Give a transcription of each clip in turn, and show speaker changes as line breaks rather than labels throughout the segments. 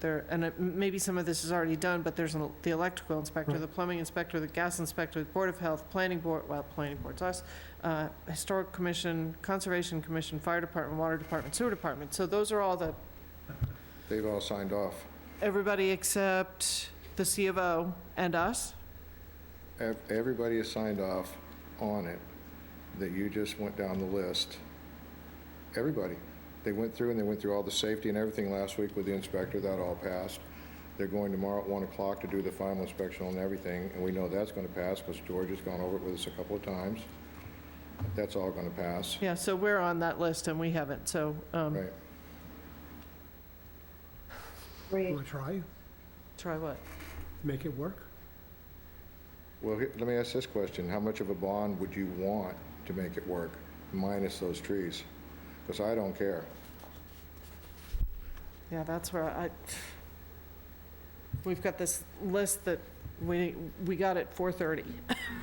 There, and it- maybe some of this is already done, but there's an- the electrical inspector,
Right.
the plumbing inspector, the gas inspector, the Board of Health, Planning Board, well, Planning Board's us, uh, Historic Commission, Conservation Commission, Fire Department, Water Department, Sewer Department. So those are all the,
They've all signed off.
everybody except the C of O and us?
Ev- Everybody has signed off on it that you just went down the list. Everybody. They went through and they went through all the safety and everything last week with the inspector. That all passed. They're going tomorrow at 1 o'clock to do the final inspection on everything, and we know that's going to pass because George has gone over it with us a couple of times. That's all going to pass.
Yeah, so we're on that list and we haven't, so, um,
Right.
You
Great.
want to try,
try what?
make it work?
Well, he- let me ask this question. How much of a bond would you want to make it work, minus those trees? Because I don't care.
Yeah, that's where I, we've got this list that we, we got at 4:30.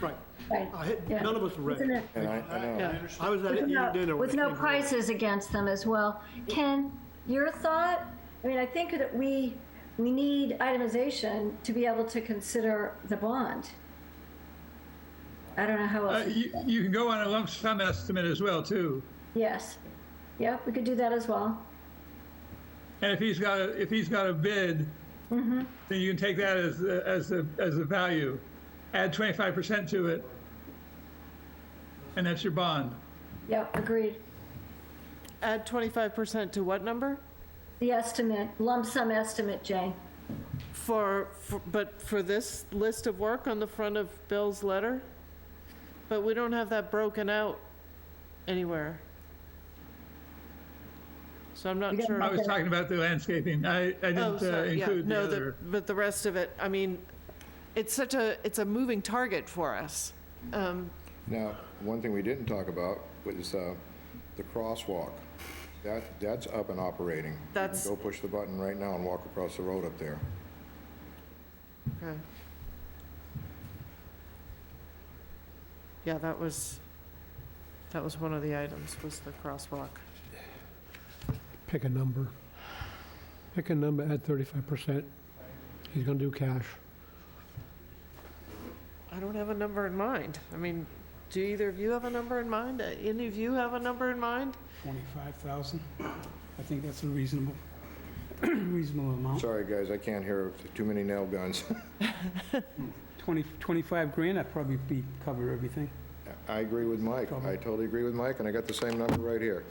Right.
Right.
I had-
Yeah.
None of us read.
Isn't
it.
it-
And I, I know.
Yeah.
I was at
With
eating
no-
dinner with.
With no
Frank Lloyd.
prices against them as well. Ken, your thought? I mean, I think that we, we need itemization to be able to consider the bond. I don't know how
Uh,
else,
You you can go on a lump sum estimate as well, too.
yes. Yep, we could do that as well.
And if he's got, a if he's got a bid,
Mm-hmm.
then you can take that as, the- as the, as the value. Add 25% to it, and that's your bond.
Yep, agreed.
Add 25% to what number?
The estimate, lump sum estimate, Jane.
For, for- but for this list of work on the front of Bill's letter? But we don't have that broken out anywhere. So I'm not
We got-
sure.
I was talking about the landscaping. I, I
Oh,
didn't uh,
sorry, yeah,
include the
no, the,
other.
but the rest of it, I mean, it's such a, it's a moving target for us. Um,
Now, one thing we didn't talk about was uh, the crosswalk. That, that's up and operating. You can
That's-
Go push the button right now and walk across the road up there.
okay. Yeah, that was, that was one of the items, was the crosswalk.
Pick a number. Pick a number, add 35%. He's going to do cash.
I don't have a number in mind. I mean, do either of you have a number in mind? Uh, Any of you have a number in mind?
25,000. I think that's a reasonable, reasonable amount.
Sorry, guys, I can't hear, too many nail guns.
20, 25 grand, I'd probably be, cover everything.
I agree with Mike. I totally agree with Mike, and I got the same number right here.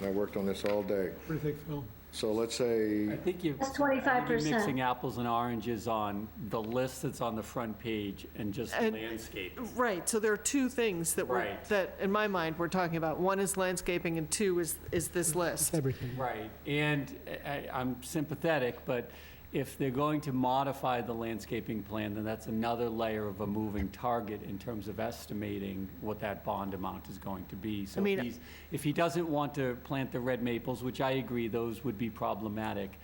And I worked on this all day.
What do you think, Phil?
So let's say,
I think you've.
That's
I think you're
25%.
Mixing apples and oranges on the list that's on the front page and just
And-
landscape.
Right, so there are two things that we're,
Right.
that in my mind, we're talking about. One is landscaping and two is, is this list.
Everything.
Right, and I, I'm sympathetic, but if they're going to modify the landscaping plan, then that's another layer of a moving target in terms of estimating what that bond amount is going to be. So
I mean-
if he's, if he doesn't want to plant the red maples, which I agree, those would be problematic,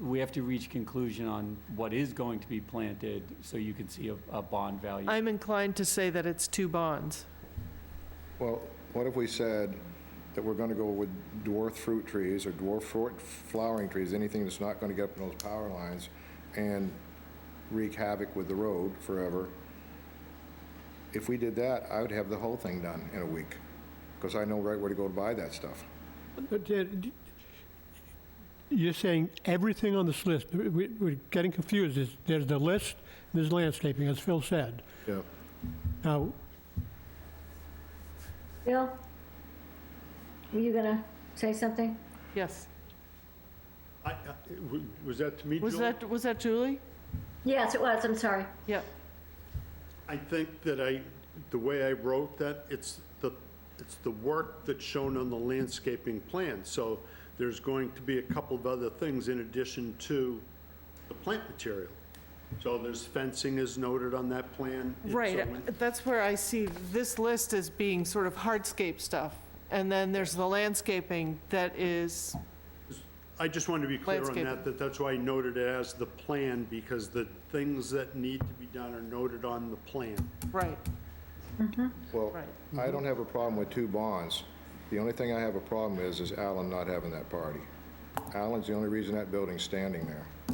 we have to reach conclusion on what is going to be planted, so you can see a, a bond value.
I'm inclined to say that it's two bonds.
well, what if we said that we're going to go with dwarf fruit trees or dwarf fruit flowering trees, anything that's not going to get up in those power lines and wreak havoc with the road forever? If we did that, I would have the whole thing done in a week, because I know right where to go to buy that stuff.
But, uh, d- You're saying everything on this list, We- we- we're getting confused, There's- there's the list, there's landscaping, as Phil said.
Yeah.
Now,
Bill? Were you gonna say something?
Yes.
I- I- w- Was that to me,
Was
Joel?
that, was that Julie?
Yes, it was, I'm sorry.
Yeah.
I think that I, the way I wrote that, it's the, it's the work that's shown on the landscaping plan. So there's going to be a couple of other things in addition to the plant material. So there's fencing is noted on that plan. and so on.
Right, that's where I see this list as being sort of hardscape stuff. And then there's the landscaping that is,
I just wanted to be clear on
Landscaping.
that, that that's why I noted it as the plan, because the things that need to be done are noted on the plan.
right,
Well,
Right.
I don't have a problem with two bonds. The only thing I have a problem is, is Alan not having that party. Alan's the only reason that building's standing there.